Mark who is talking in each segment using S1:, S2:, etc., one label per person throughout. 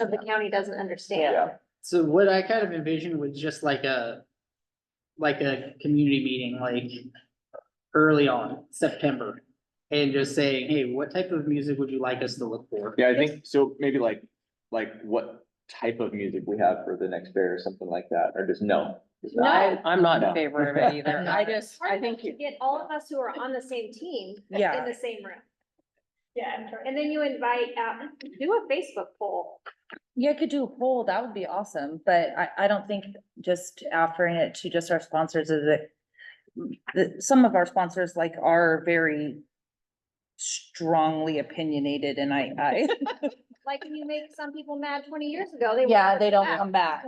S1: of the county doesn't understand.
S2: Yeah.
S3: So what I kind of envisioned was just like a, like a community meeting, like early on, September. And just saying, hey, what type of music would you like us to look for?
S2: Yeah, I think, so maybe like, like what type of music we have for the next fair or something like that, or just no. Just
S1: No.
S4: I, I'm not
S2: No.
S4: in favor of it either. I just,
S1: Part
S4: I
S1: of it
S4: think,
S1: to
S4: you-
S1: Get all of us who are on the same team in
S4: yeah,
S1: the same room.
S5: Yeah.
S1: And then you invite out, do a Facebook poll.
S6: Yeah, could do a poll, that would be awesome, but I, I don't think just offering it to just our sponsors is it. The, some of our sponsors like are very strongly opinionated and I, I,
S1: Like when you make some people mad twenty years ago, they.
S6: yeah,
S1: won't
S6: they don't
S1: back.
S6: come back.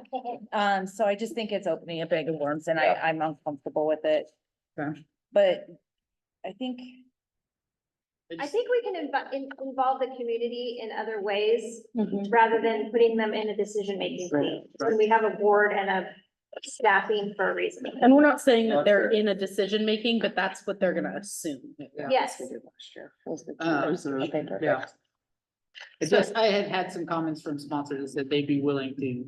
S6: Um, so I just think it's opening a bag of worms and I,
S2: Yeah.
S6: I'm uncomfortable with it.
S3: Okay.
S6: But I think,
S1: I think we can inv- in- involve the community in other ways
S5: Mm-hmm.
S1: rather than putting them in a decision making
S3: Right,
S1: seat.
S3: right.
S1: When we have a board and a staffing for a reason.
S5: And we're not saying
S2: That's
S5: that they're
S2: fair.
S5: in a decision making, but that's what they're gonna assume.
S1: Yes.
S5: Uh,
S3: Um, so, yeah. It's just, I had had some comments from sponsors that they'd be willing to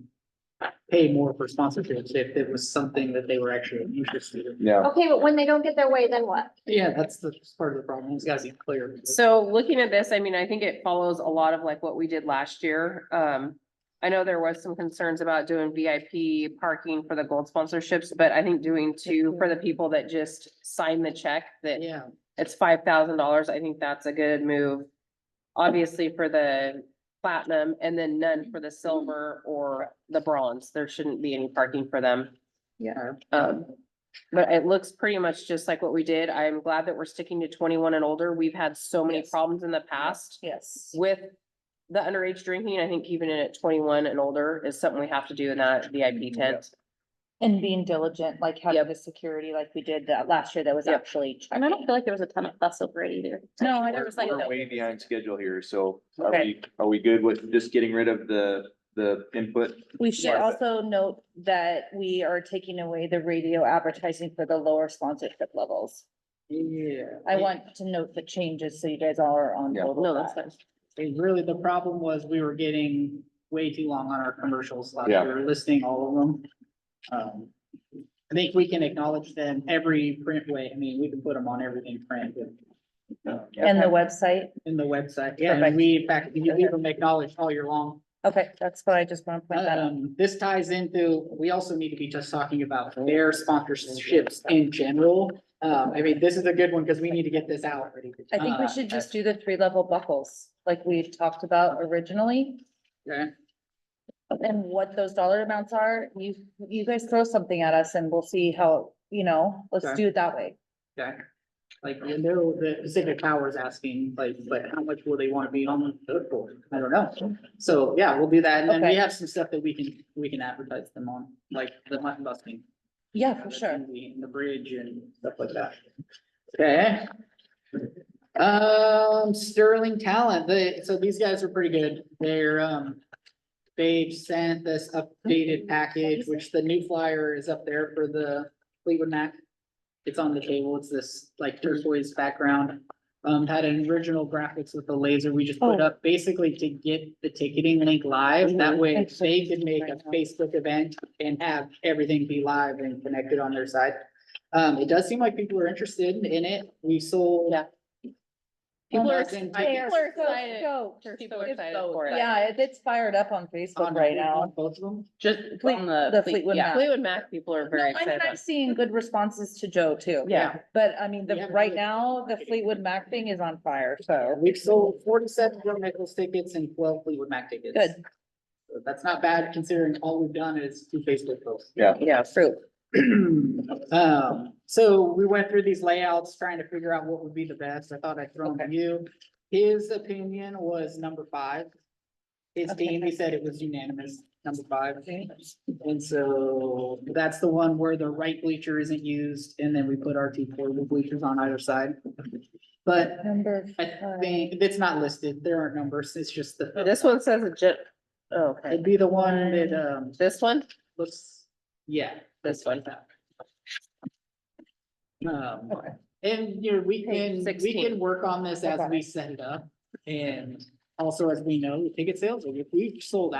S3: pay more for sponsorships if it was something that they were actually interested in.
S2: Yeah,
S1: Okay, but when they don't get their way, then what?
S3: Yeah, that's the part of the problem. It's gotta be clear.
S4: so looking at this, I mean, I think it follows a lot of like what we did last year. Um, I know there was some concerns about doing VIP parking for the gold sponsorships, but I think doing two for the people that just sign the check that
S3: Yeah,
S4: it's five thousand dollars. I think that's a good move. Obviously for the platinum and then none for the silver or the bronze. There shouldn't be any parking for them.
S3: yeah.
S4: Um, but it looks pretty much just like what we did. I'm glad that we're sticking to twenty-one and older. We've had so many
S6: Yes.
S4: problems in the past
S6: yes.
S4: with the underage drinking. I think even at twenty-one and older is something we have to do in that VIP tent.
S6: And being diligent, like having the security like we did that last year that was
S4: Yep.
S6: actually.
S5: And I don't feel like there was a ton of fuss over it either.
S6: No, Oh, I
S2: we're
S6: was like.
S2: we're way behind schedule here, so are
S6: Okay.
S2: we, are we good with just getting rid of the, the input?
S6: We should
S2: Yes.
S6: also note that we are taking away the radio advertising for the lower sponsorship levels.
S3: Yeah.
S6: I want to note the changes so you guys all are on
S2: Yeah.
S6: board
S4: No,
S6: with
S4: that's
S6: that.
S4: fine.
S3: And really, the problem was we were getting way too long on our commercials last
S2: Yeah.
S3: year, listing all of them. Um, I think we can acknowledge them every print way. I mean, we can put them on everything print but, um,
S6: And the website,
S3: in the website. Yeah, and
S6: Perfect.
S3: we, in fact, you leave them acknowledged all year long.
S6: okay, that's what I just want to point that out.
S3: Um, this ties into, we also need to be just talking about
S6: Oh.
S3: their sponsorships in general. Um, I mean, this is a good one because we need to get this out.
S6: I think
S3: Uh,
S6: we should just do the three level buckles, like we talked about originally.
S3: Okay.
S6: And what those dollar amounts are, you, you guys throw something at us and we'll see how, you know, let's
S3: Okay.
S6: do it that way.
S3: Okay, like, you know, the Pacific Power is asking, like, but how much will they wanna be on the hook for? I don't know. So, yeah, we'll do that, and then we
S6: Okay.
S3: have some stuff that we can, we can advertise them on, like the mutton busting.
S6: Yeah, for sure.
S3: And The, and the bridge and stuff like that. Okay. Um, Sterling Talent, they, so these guys are pretty good. They're, um, they've sent this updated package, which the new flyer is up there for the Fleetwood Mac. It's on the table. It's this like turquoise background. Um, had an original graphics with the laser we just put
S6: Oh.
S3: up basically to get the ticketing link live. That
S6: Mhm.
S3: way
S6: Thanks for
S3: they could make a
S6: right now.
S3: Facebook event and have everything be live and connected on their side. Um, it does seem like people are interested in it. We sold.
S4: Yeah.
S3: People are
S4: excited.
S6: People are
S4: so excited.
S6: stoked.
S4: People are
S6: It's
S4: excited
S6: so-
S4: for it.
S6: Yeah, it- it's fired up on Facebook right now.
S3: Both of them.
S4: Just
S6: Fleet-
S4: on the.
S6: the
S4: Fleet-
S6: Fleetwood
S4: yeah,
S6: Mac.
S4: Fleetwood Mac people are
S6: No,
S4: very
S6: I mean,
S4: excited.
S6: I'm seeing good responses to Joe too.
S4: Yeah.
S6: But I mean,
S3: We
S6: the,
S3: haven't
S6: right
S3: really-
S6: now, the Fleetwood Mac thing is on fire,
S3: Uh,
S6: so
S3: We've sold forty-seven Joe Nichols tickets and twelve Fleetwood Mac tickets.
S6: good,
S3: So That's not bad considering all we've done is two Facebook posts.
S6: yeah, fruit.
S3: Um, so we went through these layouts trying to figure out what would be the best. I thought I'd throw them to you. His opinion was number five. His
S6: Okay.
S3: team, he said it was unanimous, number five. And so that's the one where the right bleacher isn't used and then we put our two portable bleachers on either side. But
S6: Number
S3: I think it's not listed. There aren't numbers. It's just the.
S4: This one says a gen, oh, okay,
S3: It'd be the one that, um,
S4: this one,
S3: looks, yeah.
S4: this one.
S3: Um, and, you know, we can,
S4: Page
S3: we
S4: 16.
S3: can work on this as we set it up. And also, as we know, ticket sales, if we sold